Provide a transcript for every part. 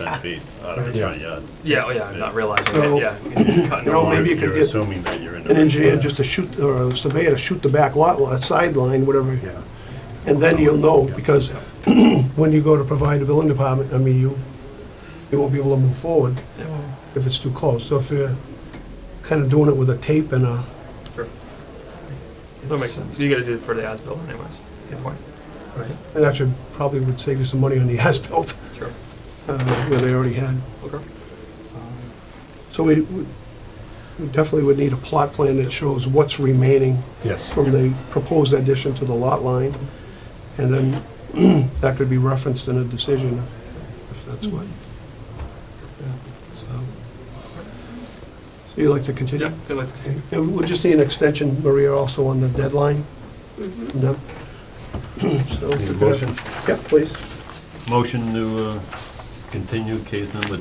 Ah. ten feet out of his front yard. Yeah, oh yeah, I'm not realizing So- it, yeah. It's cutting You know, along. maybe you could You're get assuming that you're in. an the- engineer just to shoot, or a surveyor to shoot the back lot, lot, sideline, whatever. Yeah. And then you'll know, because when you go to provide a building department, I mean, you, you won't be able to move forward if it's too close. So if you're kind of doing it with a tape and a. Sure. That makes sense. You gotta do it for the as-built anyways. Good point. Right, and that should, probably would save you some money on the as-built, Sure. uh, where they already had. Okay. So we, we we definitely would need a plot plan that shows what's remaining Yes. from the proposed addition to the lot line, and then that could be referenced in a decision, if that's what. yeah, So So you'd like to continue? Yeah, good, let's continue. Yeah, We'll just need an extension, Maria, also on the deadline. No? So if Need a you could- motion? Yeah, please. Motion to uh, continue case number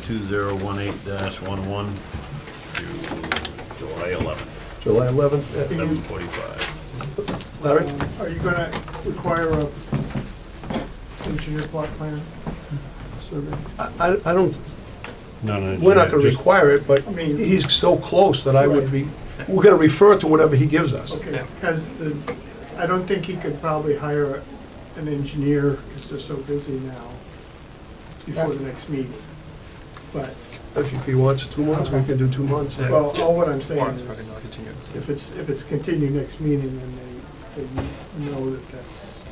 2018-11 to July 11th, July 11th. Uh, 7:45. Larry? Are you gonna require a engineer plot plan survey? I, I- I don't, No, no. we're not gonna require it, but I mean- he's so close that I would be, we're gonna refer to whatever he gives us. Okay, Yeah. because the, I don't think he could probably hire an engineer, because they're so busy now, before the next meeting. But, If if he wants two months, we can do two months. Yeah. well, all what I'm saying Warrants, fucking no is, continuance. if it's, if it's continued next meeting, then they, they know that that's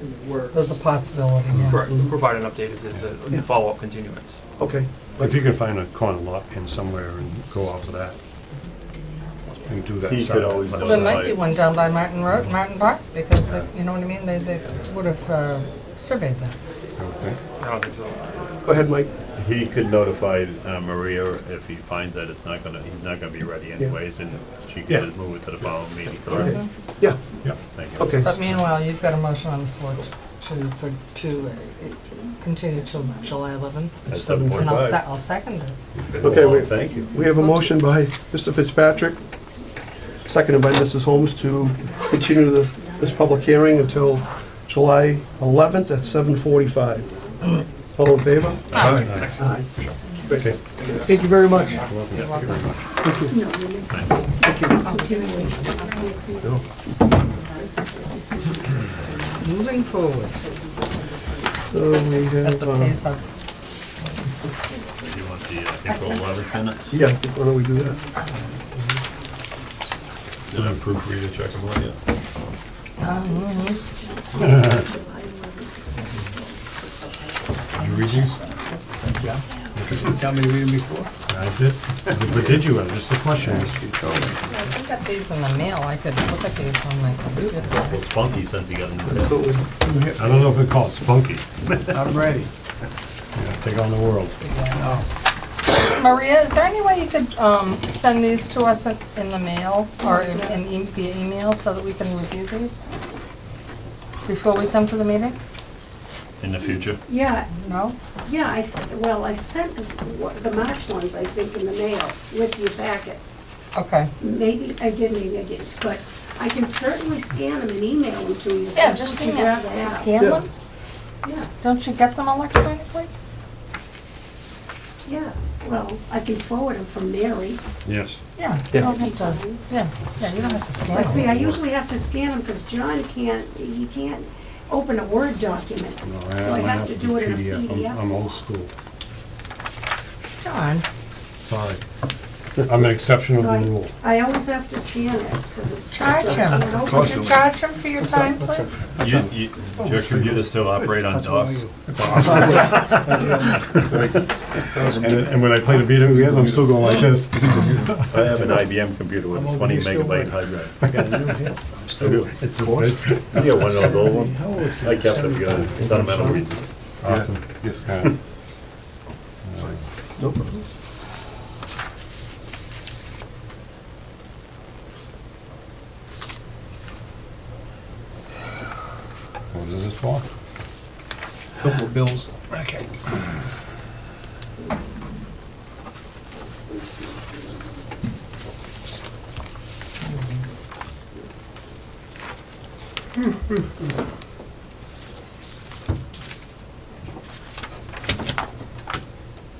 in the works. There's a possibility, yeah. Correct, provide an update if it's a Yeah. follow-up continuance. Okay. If you can find a corner lot pin somewhere and go off of that. And do that. He could side. always do There it. might be one down by Martin Road, Martin Park, because, they- you know what I mean, they, they would have uh, surveyed that. Okay. I don't think so. Go ahead, Mike. He could notify uh, Maria if he finds that it's not gonna, he's not gonna be ready anyways, and she Yeah. can just move it to the following meeting. correct? Yeah, Yeah. Thank you. okay. But meanwhile, you've got a motion on the floor to, to- for, to uh, continue till July 11th. At And I'll, 7:45. se- I'll second it. Okay, Well, wait. Thank you. We have a motion by Mr. Fitzpatrick, seconded by Mrs. Holmes to continue the- this public hearing until July 11th at 7:45. All in favor? Aye. Okay. Thank you very much. You're welcome. Moving forward So we at have, the uh, pace of, Do you want the uh, April 11th minutes? yeah, why don't we do that? Did I proofread it, check them out yet? Did you read these? Yeah. You Tell me to read them before. I did. But did you? Just a question. I think got these in the mail, I could look at these on my computer. Well, Spunky since he got a new. So we- I don't know if they call it spunky. I'm ready. Yeah, Take on the world. Maria, is there any way you could um, send these to us in in the mail or in in e- via email so that we can review these before we come to the meeting? In the future? Yeah, No? yeah, I, s- well, I sent wha- the March ones, I think, in the mail with your packets. Okay. Maybe I did, maybe I didn't, but I can certainly scan them and email them to you. if Yeah, that's just what you'd email. rather have. Scan Yeah. them? Yeah, Don't you get them electronically? yeah, well, I can forward them from Mary. Yes. Yeah, you Yeah. don't have to, yeah, yeah, you don't have to scan But see, them. I usually have to scan them because John can't, he can't open a Word document. No, So I went have up to do it in a I'm- I'm PDF. old school. John, Sorry. I'm an exception of So the I- rule. I always have to scan it because it. charge him. Would you charge him for your time, please? You, you, Oh, your computer still operate on DOS? And, and when I play the video games, I'm still going like this. I have an IBM computer with I'm twenty over here still megabyte working. hard drive. I got a new hip. I'm I do. still. It's just big. You got one of those old ones? How old is I it? kept it because Seventy-five. sentimental reasons. Awesome. Yeah. What is this for? Couple of bills. Okay.